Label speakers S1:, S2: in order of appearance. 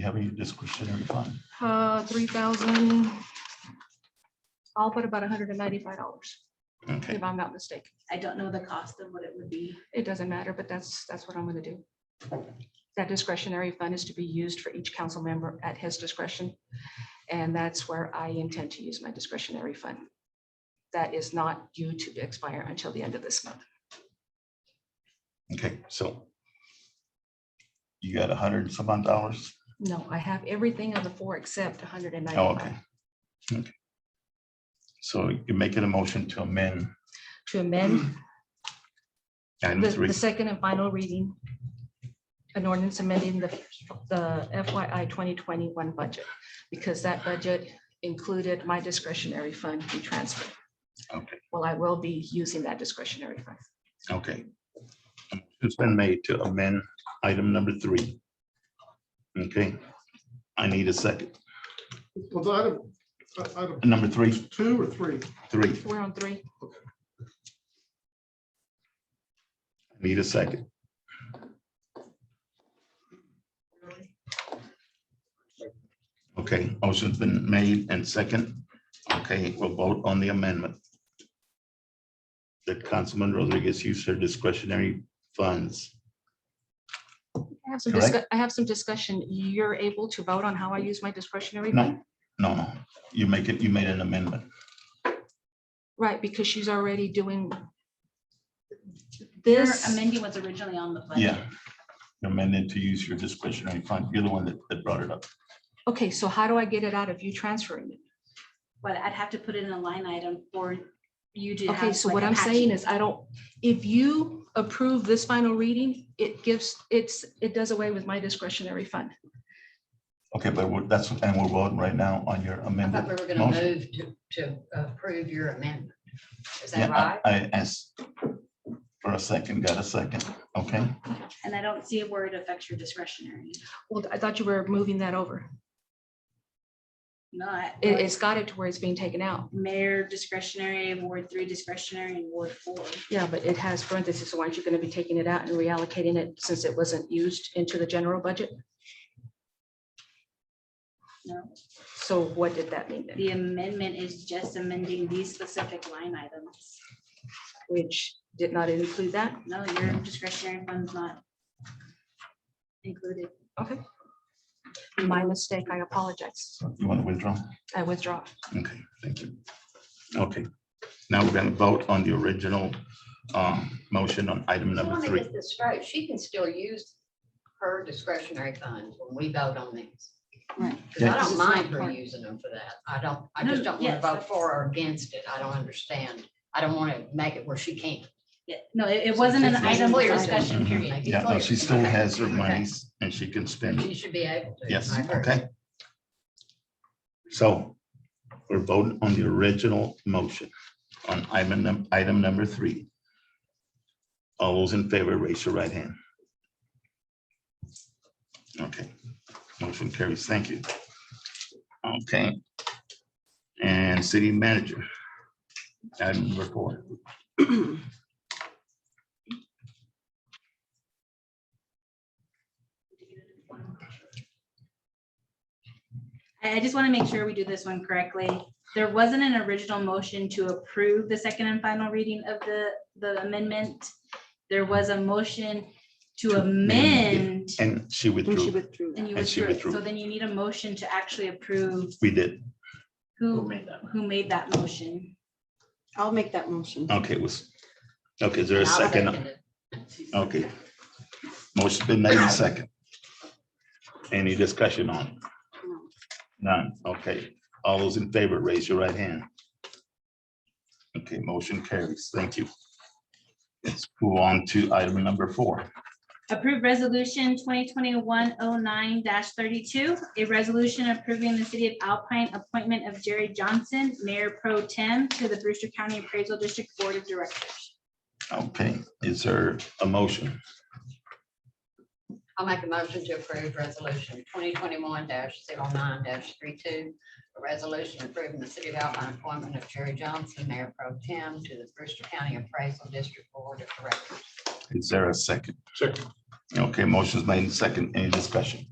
S1: have any discretionary fund?
S2: Uh, three thousand. I'll put about hundred and ninety-five dollars,
S1: Okay,
S2: if I'm not mistaken.
S3: I don't know the cost of what it would be.
S2: It doesn't matter, but that's, that's what I'm gonna do. That discretionary fund is to be used for each council member at his discretion. And that's where I intend to use my discretionary fund. That is not due to expire until the end of this month.
S1: okay, so you got a hundred and some odd dollars?
S2: No, I have everything on the four except hundred and
S1: Oh, okay.
S2: ninety-five.
S1: Okay. So you're making a motion to amend
S2: To amend
S1: item
S2: the,
S1: three.
S2: the second and final reading. An ordinance amending the, the FYI 2021 budget, because that budget included my discretionary fund to transfer.
S1: Okay,
S2: Well, I will be using that discretionary fund.
S1: okay. It's been made to amend item number three. Okay, I need a second.
S4: Was item, uh, item
S1: Number three,
S4: two or three?
S1: three,
S2: We're on three.
S1: need a second. Okay, motion's been made and second. Okay, we'll vote on the amendment. That Councilman Rodriguez used her discretionary funds.
S2: I have some
S1: Correct.
S2: discuss, I have some discussion. You're able to vote on how I use my discretionary fund?
S1: No, no, no, you make it, you made an amendment.
S2: Right, because she's already doing
S3: They're
S2: this.
S3: amending what's originally on the budget.
S1: Yeah. Amended to use your discretionary fund. You're the one that, that brought it up.
S2: Okay, so how do I get it out of you transferring it?
S3: But I'd have to put it in a line item for you to have.
S2: Okay, so
S3: like
S2: what
S3: an
S2: I'm saying
S3: action.
S2: is I don't, if you approve this final reading, it gives, it's, it does away with my discretionary fund.
S1: Okay, but we're- that's, and we're voting right now on your
S5: I thought
S1: amendment.
S5: we were gonna
S1: motion.
S5: move to, to approve your amendment. Is that
S1: Yeah,
S5: right?
S1: I I asked for a second, got a second, okay?
S3: And I don't see where it affects your discretionary.
S2: Well, I thought you were moving that over.
S3: No, I-
S2: It, it's got it to where it's being taken out.
S3: Mayor discretionary, Ward three discretionary, and Ward four.
S2: Yeah, but it has parentheses, so aren't you going to be taking it out and reallocating it since it wasn't used into the general budget?
S3: No,
S2: So what did that mean then?
S3: the amendment is just amending these specific line items.
S2: Which did not include that?
S3: No, your discretionary fund's not included.
S2: Okay. My mistake, I apologize.
S1: You want to withdraw?
S2: I withdraw.
S1: Okay, thank you. Okay, now we're gonna vote on the original um, motion on item
S5: I
S1: number
S5: want to
S1: three.
S5: get this straight. She can still use her discretionary funds when we vote on these.
S3: Right.
S5: Because I
S1: Yeah.
S5: don't mind her using them for that. I don't, I just
S3: No,
S5: don't want
S3: yes,
S5: to vote for
S3: that's-
S5: or against it. I don't understand. I don't want to make it where she can't.
S3: Yeah, no, it, it wasn't an
S5: It's
S3: item for
S5: clear.
S3: discussion
S1: Mhm.
S3: period.
S1: Yeah, no, she still has her monies and she can spend
S5: She
S1: it.
S5: should be able to.
S1: Yes,
S5: I agree.
S1: okay. So we're voting on the original motion on item, num- item number three. All those in favor, raise your right hand. Okay, motion carries. Thank you. Okay. And city manager. Item number four.
S3: I, I just want to make sure we do this one correctly. There wasn't an original motion to approve the second and final reading of the, the amendment. There was a motion to amend
S1: And she withdrew.
S3: and you
S1: And she
S3: withdrew. it.
S1: withdrew.
S3: So then you need a motion to actually approve
S1: We did.
S3: who, who made that motion.
S6: I'll make that motion.
S1: Okay, it was, okay, is there a
S5: And I'll
S1: second?
S5: it.
S1: Okay. Motion's been made and second. Any discussion on? it? None, okay. All those in favor, raise your right hand. Okay, motion carries. Thank you. Let's move on to item number four.
S3: Approved resolution twenty twenty-one oh nine thirty-two, a resolution approving the city of Alpine appointment of Jerry Johnson, mayor pro tem to the Brewster County Appraisal District Board of Directors.
S1: Okay, is there a motion?
S5: I'll make a motion to approve resolution twenty twenty-one 9 32 A resolution approving the city of Alpine appointment of Jerry Johnson, Mayor Pro Tem, to the Brewster County Appraisal District Board of Directors.
S1: Is there a second? Second. Okay, motion's made and second. Any discussion?